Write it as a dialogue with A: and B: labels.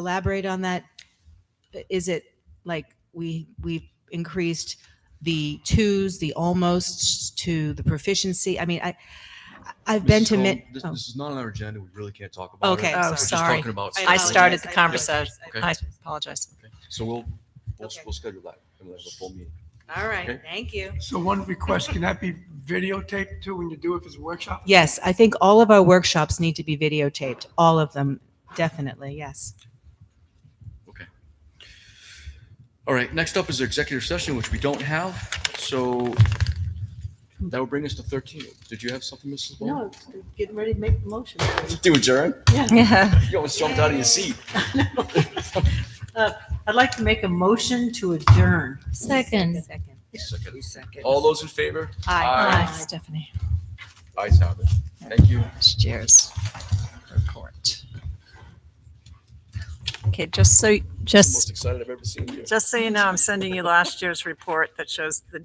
A: elaborate on that? Is it like we, we've increased the twos, the almosts to the proficiency? I mean, I, I've been
B: Mrs.
A: to
B: Cohen,
A: mid.
B: This,
A: oh.
B: this is not on our agenda. We really can't talk about
A: Okay,
B: it.
A: Oh,
B: We're just
A: sorry.
B: talking about
A: I
C: I
B: something.
C: started the
A: apologize. I
C: conversation.
B: Okay.
C: I apologize.
B: Okay. So we'll we'll,
A: Okay.
B: we'll schedule that. and we'll have a full meeting.
A: All right,
B: Okay.
A: thank you.
D: So one request, can that be videotaped too when you do it as a workshop?
A: Yes, I think all of our workshops need to be videotaped, all of them, definitely, yes.
B: All right. Next up is executive session, which we don't have. So that will bring us to 13. Did you have something, Mrs. Bowen?
E: No, it's getting ready to make the motion.
B: Do adjourn?
C: Yeah.
B: You almost jumped out of your seat.
E: Uh, I'd like to make a motion to adjourn.
C: Second.
B: Second.
E: Second.
B: All those in favor?
C: Hi,
B: Aye.
C: Stephanie.
B: Ayes have it. Thank you.
C: Cheers. Report. Okay, just so, just
B: Most excited I've ever seen you.
F: Just so you know, I'm sending you last year's report that shows the